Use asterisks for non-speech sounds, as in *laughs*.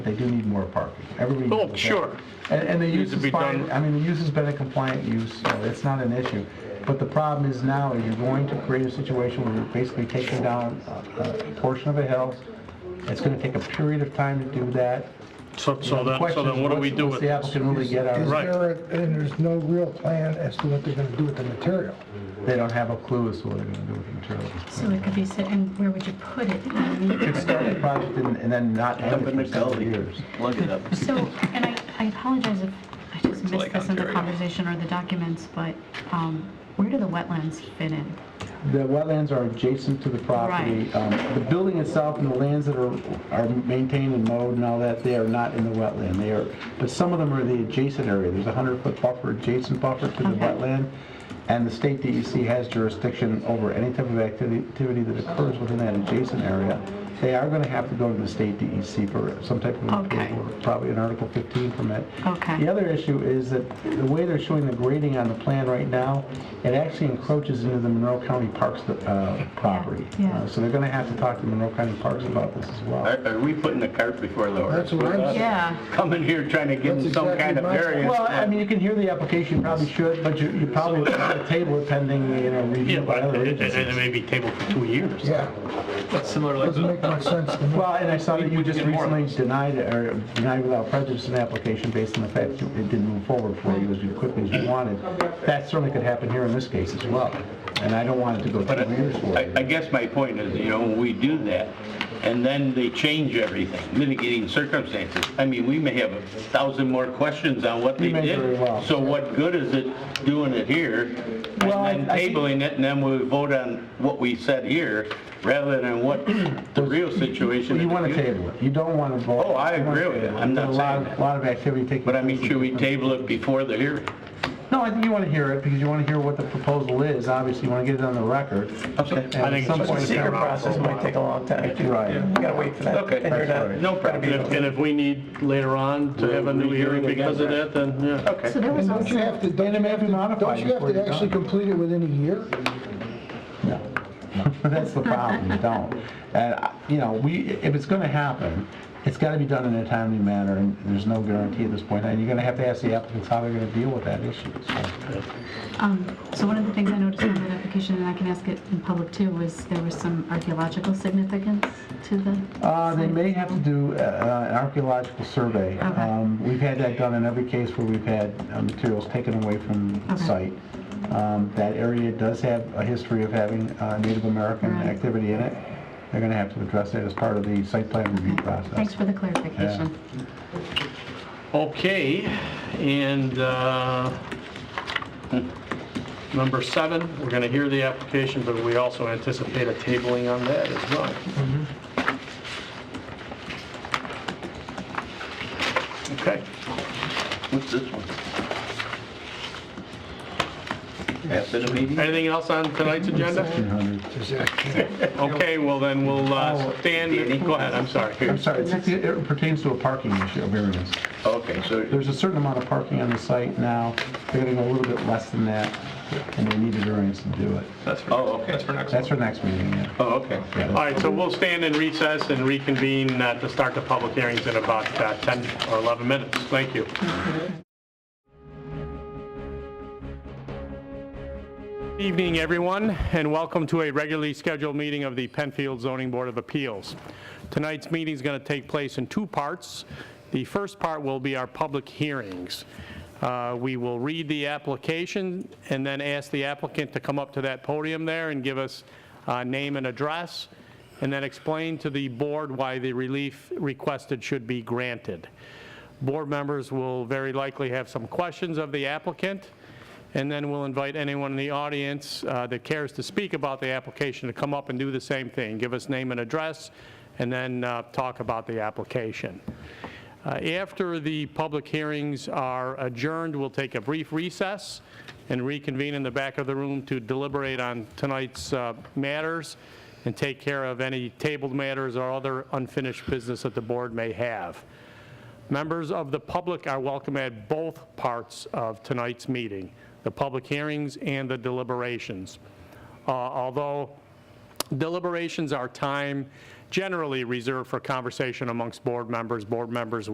they do need more parking. Everybody. Oh, knows that. sure. And, and the use to is be fine, done. I mean, the use has been a compliant use, so it's not an issue. But the problem is now, is you're going to create a situation where you're basically taking down a a portion of a hill. It's gonna take a period of time to do that. So, so The then, so question then is, what do what's- we do what's with the this? applicant really get out of Is it? Right. there, a- and there's no real plan as to what they're gonna do with the material. They don't have a clue as to what they're gonna do with the material. So it could be said, and where would you put it? Um, Could start the project and and then not end Dump in the it for several gully, years. plug it up. So, and I, I apologize if I just missed like this in the Ontario. conversation or the documents, but, um, where do the wetlands fit in? The wetlands are adjacent to the property. Right. Um, The building itself and the lands that are, are maintained and mowed and all that, they are not in the wetland. They are, but some of them are the adjacent area. There's a 100-foot buffer, adjacent buffer to the Okay. wetland. And the state DEC has jurisdiction over any type of activity activity that occurs within that adjacent area. They are going to have to go to the state DEC for some type of Okay. approval, probably an Article 15 permit. Okay. The other issue is that the way they're showing the grading on the plan right now, it actually encroaches into the Monroe County Parks uh, property. Yeah, yeah. Uh, So they're going to have to talk to Monroe County Parks about this as well. Are, are we putting the cart before the horse? That's what I'm saying. Yeah, Coming here trying to give them That's some exactly kind of my- variance. Well, I mean, you can hear the application, you probably should, but you you probably would have to table it pending, you know, Yeah, review by but, other and and it agencies. may be tabled for two years. Yeah, That's similar like doesn't make much sense to me. Well, and I saw that you We just did more of recently denied, it, or denied without prejudice an application based on the fact that it didn't move forward for you as quickly as you wanted. That certainly could happen here in this case as well, and I don't want it to go But two years for I, it. I guess my point is, you know, when we do that, and then they change everything, mitigating circumstances. I mean, we may have a thousand more questions on what they may very did. well. So what good is it doing it here, and Well, I- then I think- tabling it, and then we vote on what we said here, rather than what the real situation is. You want to table it. You don't want to vote. Oh, I agree with you. I'm not There's a lot of- saying that. Lot of activity taking. But I mean, place. *laughs* should we table it before the hearing? No, I think you want to hear it because you want to hear what the proposal is. Obviously, you want to get it on the record. Okay. And at think some it's point The in time- secret process might take a long time, too. Right. You gotta wait for that. Okay, And you're that's not- right. No And problem. if, and if we need later on to have a new Redo it hearing because of again. that, then, yeah. so there was And don't you also, have to, And it don't may have to be modified. you have before to you're actually done. complete it within a year? No, no. That's the problem, you don't. And, I- you know, we, if it's gonna happen, it's gotta be done in a timely manner, and there's no guarantee at this point, and you're gonna have to ask the applicants how they're gonna deal with that issue. so. um, so one of the things I noticed on that application, and I can ask it in public too, was there was some archaeological significance to the. Uh, They site. may have to do uh, uh, an archaeological survey. Okay. Um, We've had that done in every case where we've had uh, materials taken away from the Okay. site. Um, That area does have a history of having uh, Native American Right. activity in it. They're gonna have to address that as part of the site plan review process. Thanks for the clarification. Okay, and, uh, number seven, we're gonna hear the application, but we also anticipate a tabling on that as well. Okay. What's this one? After the meeting? Anything else on tonight's agenda? 1,600. Okay, well then, we'll uh, Oh, stand, go ahead, I'm sorry. I'm sorry, it's- it pertains to a parking issue, a variance. Okay, so There's a certain amount of parking on the site now, they're gonna go a little bit less than that, and they need a variance to do it. That's for, Oh, okay. that's for next. That's for next meeting, yeah. Oh, okay. All right, so we'll stand in recess and reconvene uh, to start the public hearings in about uh, 10 or 11 minutes. Thank you. Evening, everyone, and welcome to a regularly scheduled meeting of the Penfield Zoning Board of Appeals. Tonight's meeting is going to take place in two parts. The first part will be our public hearings. Uh, We will read the application and then ask the applicant to come up to that podium there and give us uh, name and address, and then explain to the board why the relief requested should be granted. Board members will very likely have some questions of the applicant, and then we'll invite anyone in the audience uh, that cares to speak about the application to come up and do the same thing, give us name and address, and then uh, talk about the application. Uh, After the public hearings are adjourned, we'll take a brief recess and reconvene in the back of the room to deliberate on tonight's uh, matters and take care of any tabled matters or other unfinished business that the board may have. Members of the public are welcome at both parts of tonight's meeting, the public hearings and the deliberations. Uh, Although deliberations are time generally reserved for conversation amongst board members, board members